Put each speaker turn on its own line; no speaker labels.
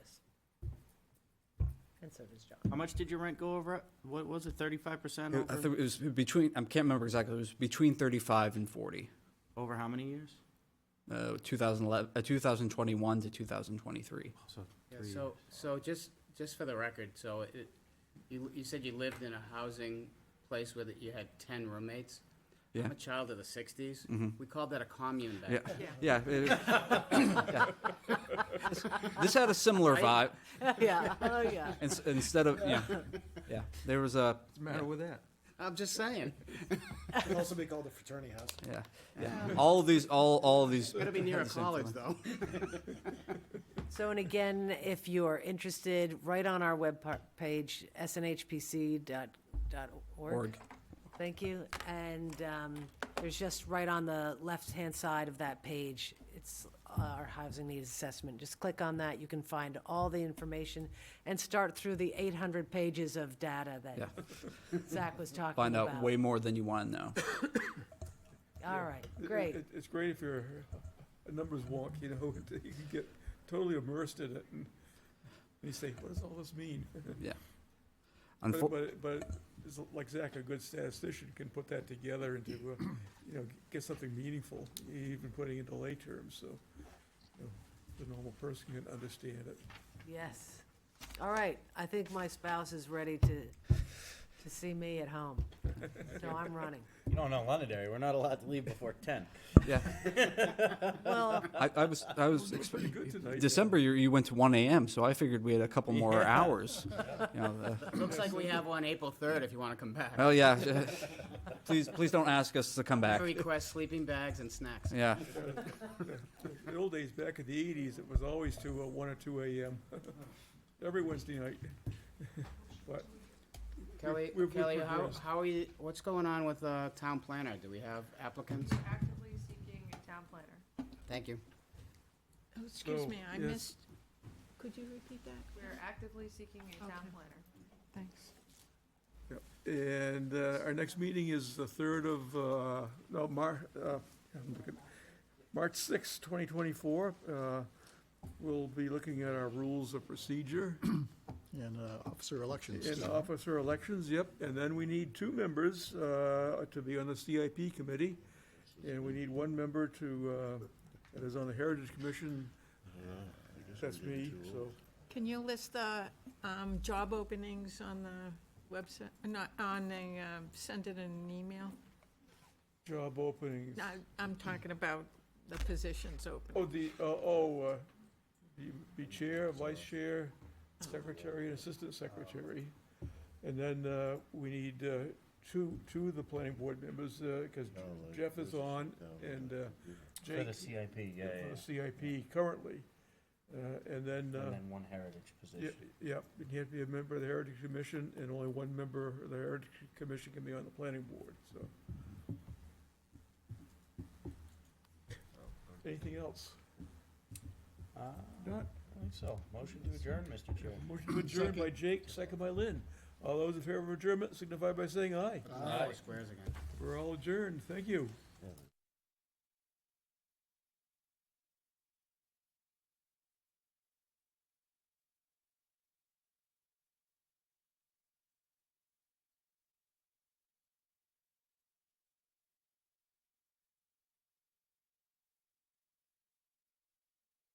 and so does John.
How much did your rent go over? What was it, thirty-five percent
I
over,
think it was between, I can't remember exactly, it was between 35 and 40,
over how many years?
uh, 2011, uh, 2021 to 2023.
Yeah,
Three
so, so just, just for the record, so it, you, you said you lived in a housing place where that you had ten roommates?
Yeah. Mm-hmm.
I'm a child of the sixties. We called that a commune back
Yeah,
then.
yeah. it- yeah. This- This had a similar vibe,
Right?
Yeah, oh, yeah.
ins- instead of, yeah, yeah, there was a,
the matter with that?
I'm just saying.
It'd also be called a fraternity house.
yeah, yeah. All of these, all, all of these.
Gotta be near a
had the same
college,
feeling.
though.
So, and again, if you are interested, right on our web par- page, snhpc.org.
Org.
Thank you. And um, there's just right on the left-hand side of that page, it's uh, our housing needs assessment. Just click on that. You can find all the information and start through the 800 pages of data that Zach was talking about.
Find out way more than you want to know.
All right,
It-
great.
it- It's great if you're a numbers wonk, you know, you can get totally immersed in it and and you say, what does all this mean?
Unfor-
But, but, but it's like Zach, a good statistician can put that together into, uh, you know, get something meaningful, even putting into lay terms, so, you know, the normal person can understand it.
Yes. All right, I think my spouse is ready to, to see me at home, so I'm running.
No, no, Londonderry, we're not allowed to leave before ten.
Yeah,
Well,
I, I was, I was, expect-
Pretty good tonight.
December, you, you went to one AM, so I figured we had a couple more hours. You know, uh, the-
Looks like we have one April third, if you wanna come back.
Oh yeah, please, please don't ask us to come back.
Request sleeping bags and snacks.
Yeah,
In the old days, back in the eighties, it was always to uh, one or two AM, every Wednesday night. But
Kelly,
we've- we've
Kelly, how,
progressed.
how are you, what's going on with, uh, town planner? Do we have applicants?
actively seeking a town planner.
Thank you.
Oh, excuse
So,
me, I
yes.
missed, could you repeat that?
We're actively seeking a town
Okay.
planner.
Thanks.
And uh, our next meeting is the third of, uh, no, Mar, uh, I'm looking- March sixth, twenty twenty-four. Uh, We'll be looking at our rules of procedure
And uh, officer elections.
and officer elections, yep. And then we need two members uh, to be on the CIP committee. And we need one member to, uh, that is on the Heritage Commission. That's me, so.
Can you list the um, job openings on the website, uh, not on the, um, send it in an email?
Job openings.
No, I'm talking about the positions open.
Oh, the, uh, oh, uh, you be chair, vice chair, secretary, and assistant secretary. And then uh, we need uh, two, two of the planning board members, because Jeff is on and uh,
For
Jake.
the CIP, yeah, yeah,
for the
yeah.
CIP currently. Uh, And then, uh,
and then one heritage
y-
position.
yeah, and you have to be a member of the Heritage Commission, and only one member of the Heritage Commission can be on the planning board, so. Anything else?
Uh, I
Not,
think so. Motion to adjourn, Mr. Chair.
Motion to adjourn by Jake, second by Lynn. All those in favor of adjournment signify by saying aye.
Squares again.
We're all adjourned, thank you.